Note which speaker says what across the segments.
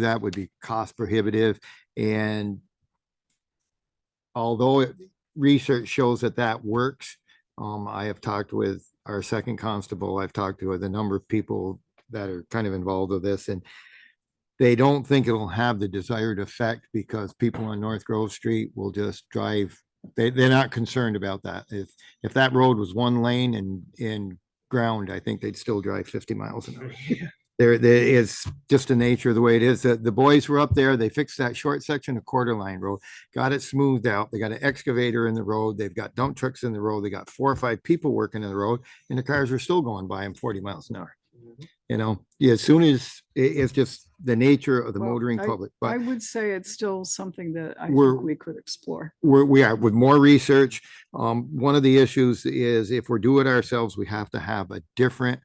Speaker 1: that would be cost prohibitive and although it- research shows that that works, um, I have talked with our second constable, I've talked to a number of people that are kind of involved with this and they don't think it'll have the desired effect because people on North Grove Street will just drive. They, they're not concerned about that. If, if that road was one lane and, and ground, I think they'd still drive fifty miles an hour there, there is just the nature of the way it is. The, the boys were up there, they fixed that short section of Quarter Line Road, got it smoothed out. They got an excavator in the road, they've got dump trucks in the road, they got four or five people working in the road, and the cars are still going by them forty miles an hour.
Speaker 2: Mm-hmm.
Speaker 1: You know, yeah, as soon as, i- it's just the nature of the
Speaker 2: Well,
Speaker 1: motoring
Speaker 2: I-
Speaker 1: public,
Speaker 2: I
Speaker 1: but
Speaker 2: would say it's still something that I
Speaker 1: We're-
Speaker 2: think we could explore.
Speaker 1: we're, we are with more research. Um, one of the issues is if we're doing it ourselves, we have to have a different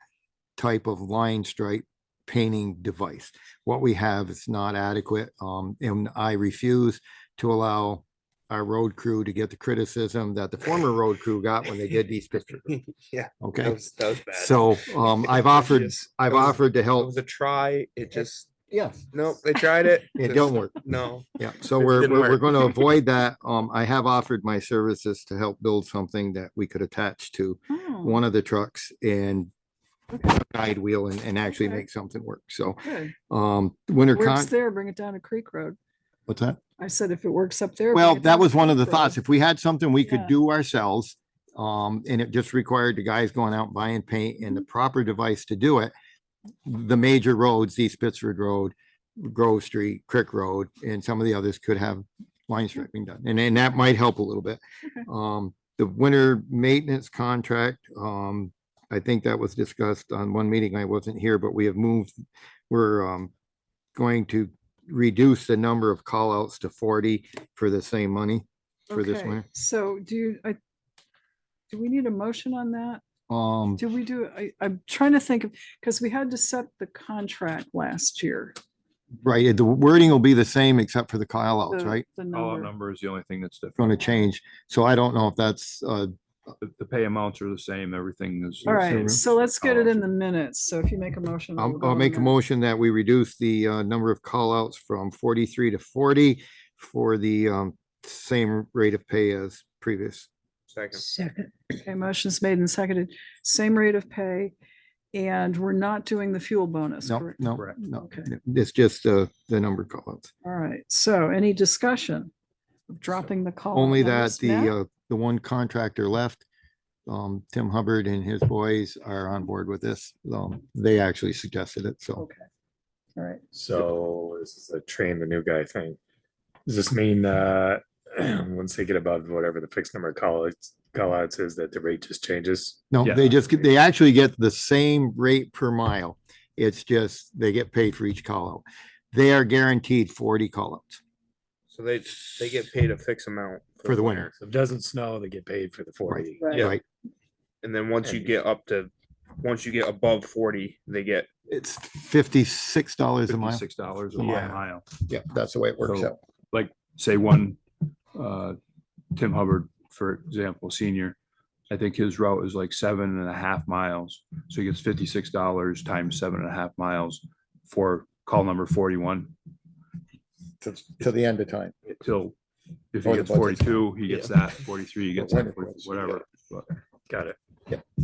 Speaker 1: type of line stripe painting device. What we have is not adequate, um, and I refuse to allow our road crew to get the criticism that the former road crew got when they did these pictures.
Speaker 3: Yeah, that
Speaker 1: Okay,
Speaker 3: was, that was bad.
Speaker 1: so, um, I've offered,
Speaker 3: Yes.
Speaker 1: I've
Speaker 3: That was-
Speaker 1: offered to
Speaker 3: It
Speaker 1: help.
Speaker 3: was a try, it just,
Speaker 1: Yes.
Speaker 3: no, they tried it.
Speaker 1: It
Speaker 3: just
Speaker 1: don't work.
Speaker 3: No,
Speaker 1: Yeah, so
Speaker 3: It
Speaker 1: we're,
Speaker 3: didn't
Speaker 1: we're
Speaker 3: work.
Speaker 1: going to avoid that. Um, I have offered my services to help build something that we could attach to
Speaker 2: Oh,
Speaker 1: one of the trucks and
Speaker 2: Okay.
Speaker 1: guide wheel and, and actually
Speaker 2: Okay.
Speaker 1: make something work. So,
Speaker 2: good.
Speaker 1: um, winter
Speaker 2: Works
Speaker 1: con.
Speaker 2: there, bring it down to Creek Road.
Speaker 1: What's that?
Speaker 2: I said if it works up there. bring
Speaker 1: Well,
Speaker 2: it down
Speaker 1: that
Speaker 2: to
Speaker 1: was one of the
Speaker 2: Creek Road.
Speaker 1: thoughts. If we had something we could
Speaker 2: Yeah.
Speaker 1: do ourselves, um, and it just required the guys going out buying paint and the
Speaker 2: Mm-hmm.
Speaker 1: proper device to do it. The major roads, East Pittsford Road, Grove Street, Crick Road, and some of the others could have line striping done. And then that might help a little bit.
Speaker 2: Okay.
Speaker 1: Um, the winter maintenance contract, um, I think that was discussed on one meeting. I wasn't here, but we have moved, we're, um, going to reduce the number of callouts to forty for the same money for this
Speaker 2: Okay,
Speaker 1: winter.
Speaker 2: So do you, I, do we need a motion on that?
Speaker 1: Um,
Speaker 2: Do we do, I, I'm trying to think of, because we had to set the contract last year.
Speaker 1: right, the wording will be the same except for the callouts,
Speaker 2: the-
Speaker 1: right?
Speaker 2: The
Speaker 4: Call out
Speaker 2: number.
Speaker 4: number is the only thing that's different.
Speaker 1: Going to change. So I don't know if that's, uh,
Speaker 4: The, the pay amounts are the same, everything is.
Speaker 2: All
Speaker 1: room.
Speaker 2: right, so let's get it in
Speaker 4: Callouts.
Speaker 2: the minutes. So if you make a motion. we'll
Speaker 1: I'll,
Speaker 2: vote
Speaker 1: I'll
Speaker 2: on
Speaker 1: make a
Speaker 2: that.
Speaker 1: motion that we reduce the, uh, number of callouts from forty-three to forty for the, um, same rate of pay as previous.
Speaker 3: second.
Speaker 2: Okay, motion's made and seconded, same rate of pay, and we're not doing the fuel bonus,
Speaker 1: No,
Speaker 2: correct?
Speaker 1: no,
Speaker 4: Correct.
Speaker 1: no,
Speaker 2: Okay.
Speaker 1: it's just, uh, the number of callouts.
Speaker 2: All right, so any discussion of dropping the call?
Speaker 1: Only that the, uh, the one contractor left, um, Tim Hubbard and his boys are on board with this. Um, they actually suggested it, so.
Speaker 2: Okay, all right,
Speaker 5: So this is a train the new guy thing. Does this mean that once they get above whatever the fixed number of call outs, call outs is that the rate just changes?
Speaker 1: No,
Speaker 4: Yeah.
Speaker 1: they just, get they actually get the same rate per mile. It's just, they get paid for each call out. They are guaranteed forty call outs.
Speaker 3: So they, they get paid a fixed amount.
Speaker 1: For the winter.
Speaker 5: So if it doesn't snow, they get paid for the forty.
Speaker 2: right.
Speaker 3: Yeah.
Speaker 1: Right,
Speaker 3: And then once you get up to, once you get above forty, they get,
Speaker 1: it's fifty-six dollars a mile.
Speaker 4: Six dollars a
Speaker 1: Yeah.
Speaker 4: mile.
Speaker 1: Yeah, that's the way it
Speaker 4: So, Like, say one, uh, Tim Hubbard, for example, senior, I think his route is like seven and a half miles. So he gets fifty-six dollars times seven and a half miles for call number forty-one
Speaker 1: To the end of time.
Speaker 4: till, if
Speaker 1: Or
Speaker 4: he
Speaker 1: the budget.
Speaker 4: gets forty-two, he gets that, forty-three, he gets that,
Speaker 1: Whatever it was, yeah.
Speaker 4: whatever.
Speaker 5: Got it.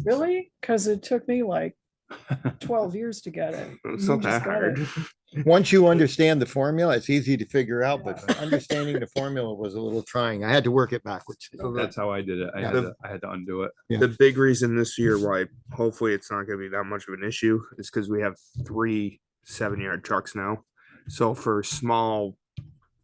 Speaker 2: Really? Because it took me like twelve years to get it.
Speaker 3: it's not that
Speaker 2: Just got
Speaker 3: hard.
Speaker 2: it.
Speaker 1: Once you understand the formula, it's easy to figure out, but
Speaker 4: Yeah.
Speaker 1: understanding the formula was a little trying. I had to work it backwards.
Speaker 3: So the-
Speaker 4: That's how I did it. I had
Speaker 3: Yeah.
Speaker 4: to, I had to undo it.
Speaker 1: Yeah.
Speaker 3: The big reason this year why hopefully it's not gonna be that much of an issue is because we have three seven yard trucks now. So for small,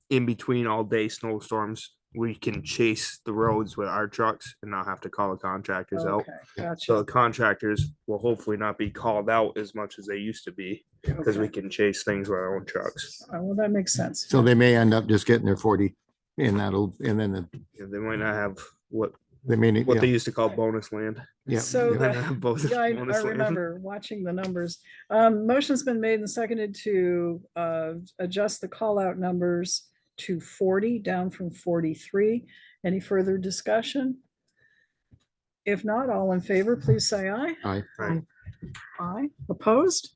Speaker 3: in between all day snowstorms, we can chase the roads with our trucks and not have to call the contractors out.
Speaker 2: Okay,
Speaker 3: So
Speaker 2: gotcha.
Speaker 3: the contractors will hopefully not be called out as much as they used to be because we
Speaker 2: Okay.
Speaker 3: can chase things with our own trucks.
Speaker 2: Oh, Well, that makes sense.
Speaker 1: So they may end up just getting their forty and that'll, and then the-
Speaker 3: Yeah, They might not have what,
Speaker 1: they may. need-
Speaker 3: what they
Speaker 1: yeah,
Speaker 3: used to call bonus land.
Speaker 1: yeah,
Speaker 2: So
Speaker 1: yeah.
Speaker 3: They might
Speaker 2: the-
Speaker 3: not have bonus-
Speaker 2: Yeah, I, I
Speaker 3: bonus land.
Speaker 2: remember watching the numbers. Um, motion's been made and seconded to, uh, adjust the call out numbers to forty, down from forty-three. Any further discussion? If not, all in favor, please say aye.
Speaker 1: Aye.
Speaker 3: Aye.
Speaker 2: Aye. Opposed?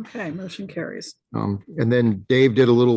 Speaker 2: Okay, motion carries.
Speaker 1: Um, and then Dave did a little